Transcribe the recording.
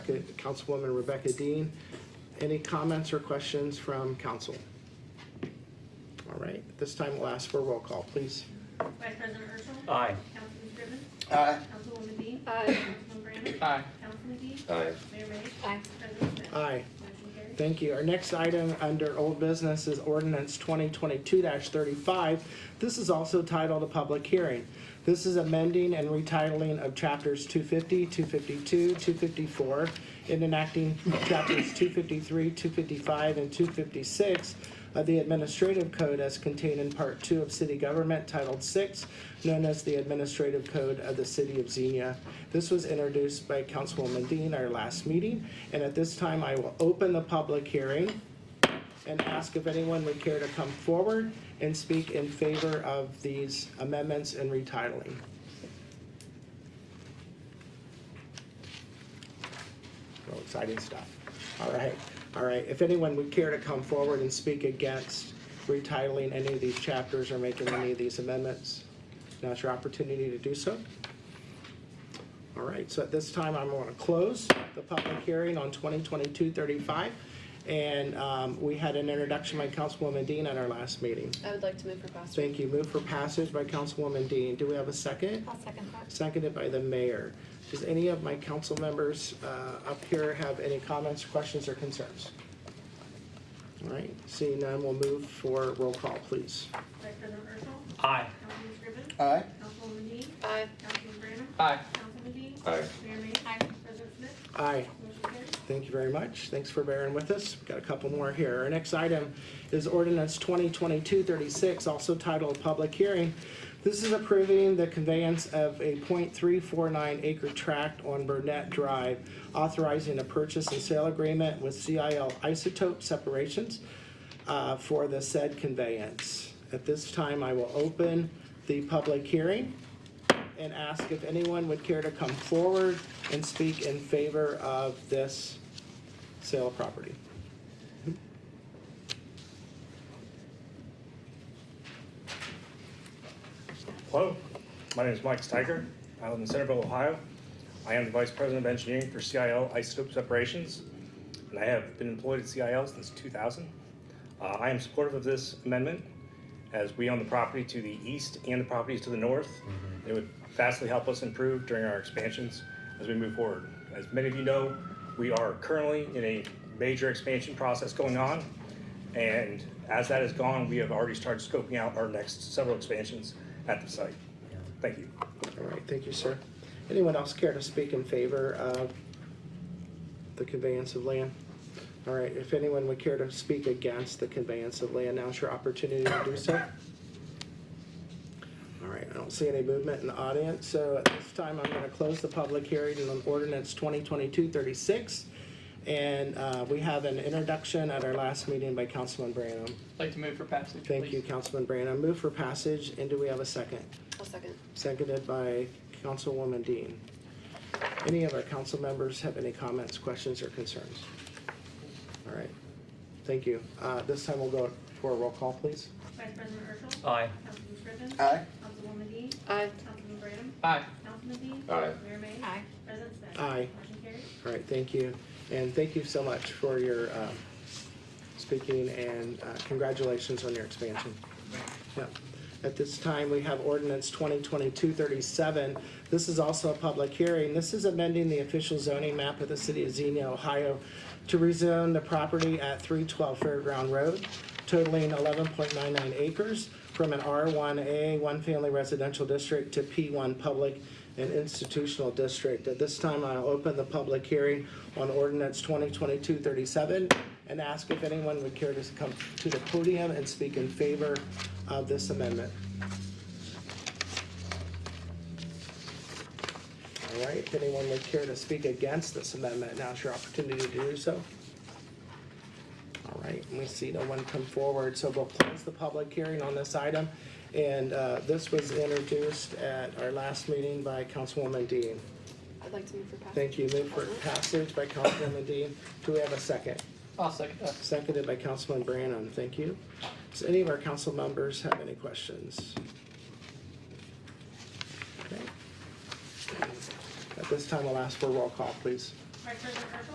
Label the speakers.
Speaker 1: Rebecca, Councilwoman Rebecca Dean. Any comments or questions from council? All right, at this time we'll ask for a roll call, please.
Speaker 2: Vice President Urschel.
Speaker 3: Aye.
Speaker 2: Councilman Scriven.
Speaker 4: Aye.
Speaker 2: Councilwoman Dean.
Speaker 5: Aye.
Speaker 2: Councilman Brandon.
Speaker 6: Aye.
Speaker 2: Councilman Dean.
Speaker 4: Aye.
Speaker 2: Mayor May.
Speaker 5: Aye.
Speaker 2: President Smith.
Speaker 1: Aye.
Speaker 2: Motion carries.
Speaker 1: Thank you. Our next item under old business is ordinance twenty twenty-two thirty-five. This is also titled a public hearing. This is amending and retitling of chapters 250, 252, 254, and enacting chapters 253, 255, and 256 of the Administrative Code as contained in Part Two of City Government Titled Six, known as the Administrative Code of the City of Xenia. This was introduced by Councilwoman Dean our last meeting, and at this time, I will open the public hearing and ask if anyone would care to come forward and speak in favor of these amendments and retitling. Oh, exciting stuff. All right, all right. If anyone would care to come forward and speak against retitling any of these chapters or making any of these amendments, now's your opportunity to do so. All right, so at this time, I'm going to close the public hearing on 2022-35. And um, we had an introduction by Councilwoman Dean at our last meeting.
Speaker 5: I would like to move for passage.
Speaker 1: Thank you. Move for passage by Councilwoman Dean. Do we have a second?
Speaker 5: I'll second that.
Speaker 1: Seconded by the mayor. Does any of my council members uh, up here have any comments, questions, or concerns? All right, seeing none, we'll move for roll call, please.
Speaker 2: Vice President Urschel.
Speaker 3: Aye.
Speaker 2: Councilman Scriven.
Speaker 4: Aye.
Speaker 2: Councilwoman Dean.
Speaker 5: Aye.
Speaker 2: Councilman Brandon.
Speaker 6: Aye.
Speaker 2: Councilman Dean.
Speaker 4: Aye.
Speaker 2: Mayor May. President Smith.
Speaker 1: Aye.
Speaker 2: Motion carries.
Speaker 1: Thank you very much. Thanks for bearing with us. Got a couple more here. Our next item is ordinance 2022-36, also titled Public Hearing. This is approving the conveyance of a .349 acre tract on Burnett Drive, authorizing a purchase and sale agreement with CIL Isotope Separations uh, for the said conveyance. At this time, I will open the public hearing and ask if anyone would care to come forward and speak in favor of this sale of property.
Speaker 7: Hello, my name is Mike Steiger. I live in Centerville, Ohio. I am the Vice President of Engineering for CIL Isotope Separations, and I have been employed at CIL since 2000. Uh, I am supportive of this amendment as we own the property to the east and the properties to the north. It would vastly help us improve during our expansions as we move forward. As many of you know, we are currently in a major expansion process going on. And as that has gone, we have already started scoping out our next several expansions at the site. Thank you.
Speaker 1: All right, thank you, sir. Anyone else care to speak in favor of the conveyance of land? All right, if anyone would care to speak against the conveyance of land, now's your opportunity to do so. All right, I don't see any movement in the audience, so at this time, I'm gonna close the public hearing on ordinance 2022-36. And uh, we have an introduction at our last meeting by Councilman Branham.
Speaker 6: I'd like to move for passage,
Speaker 1: Thank you,
Speaker 6: please.
Speaker 1: Councilman Branham. Move for passage, and do we have a second?
Speaker 5: I'll second.
Speaker 1: Seconded by Councilwoman Dean. Any of our council members have any comments, questions, or concerns? All right, thank you. Uh, This time we'll go for a roll call, please.
Speaker 2: Vice President Urschel.
Speaker 3: Aye.
Speaker 2: Councilman Scriven.
Speaker 4: Aye.
Speaker 2: Councilwoman Dean.
Speaker 5: Aye.
Speaker 2: Councilman Brandon.
Speaker 6: Aye.
Speaker 2: Councilman Dean.
Speaker 4: Aye.
Speaker 2: Mayor May.
Speaker 5: Aye.
Speaker 2: President Smith.
Speaker 1: Aye.
Speaker 2: Motion carries.
Speaker 1: All right, thank you. And thank you so much for your um, speaking and uh, congratulations on your expansion. Yeah. At this time, we have ordinance 2022-37. This is also a public hearing. This is amending the official zoning map of the city of Xenia, Ohio to rezone the property at 312 Fairground Road totaling 11.99 acres from an R1A, one-family residential district, to P1 public and institutional district. At this time, I'll open the public hearing on ordinance 2022-37 and ask if anyone would care to come to the podium and speak in favor of this amendment. All right, if anyone would care to speak against this amendment, now's your opportunity to do so. All right, and we see no one come forward, so we'll close the public hearing on this item. And uh, this was introduced at our last meeting by Councilwoman Dean.
Speaker 5: I'd like to move for passage.
Speaker 1: Thank you. Move for passage by Councilwoman Dean. Do we have a second?
Speaker 6: I'll second that.
Speaker 1: Seconded by Councilman Branham. Thank you. Does any of our council members have any questions? Okay. At this time, I'll ask for a roll call, please.
Speaker 2: Vice President Marshall?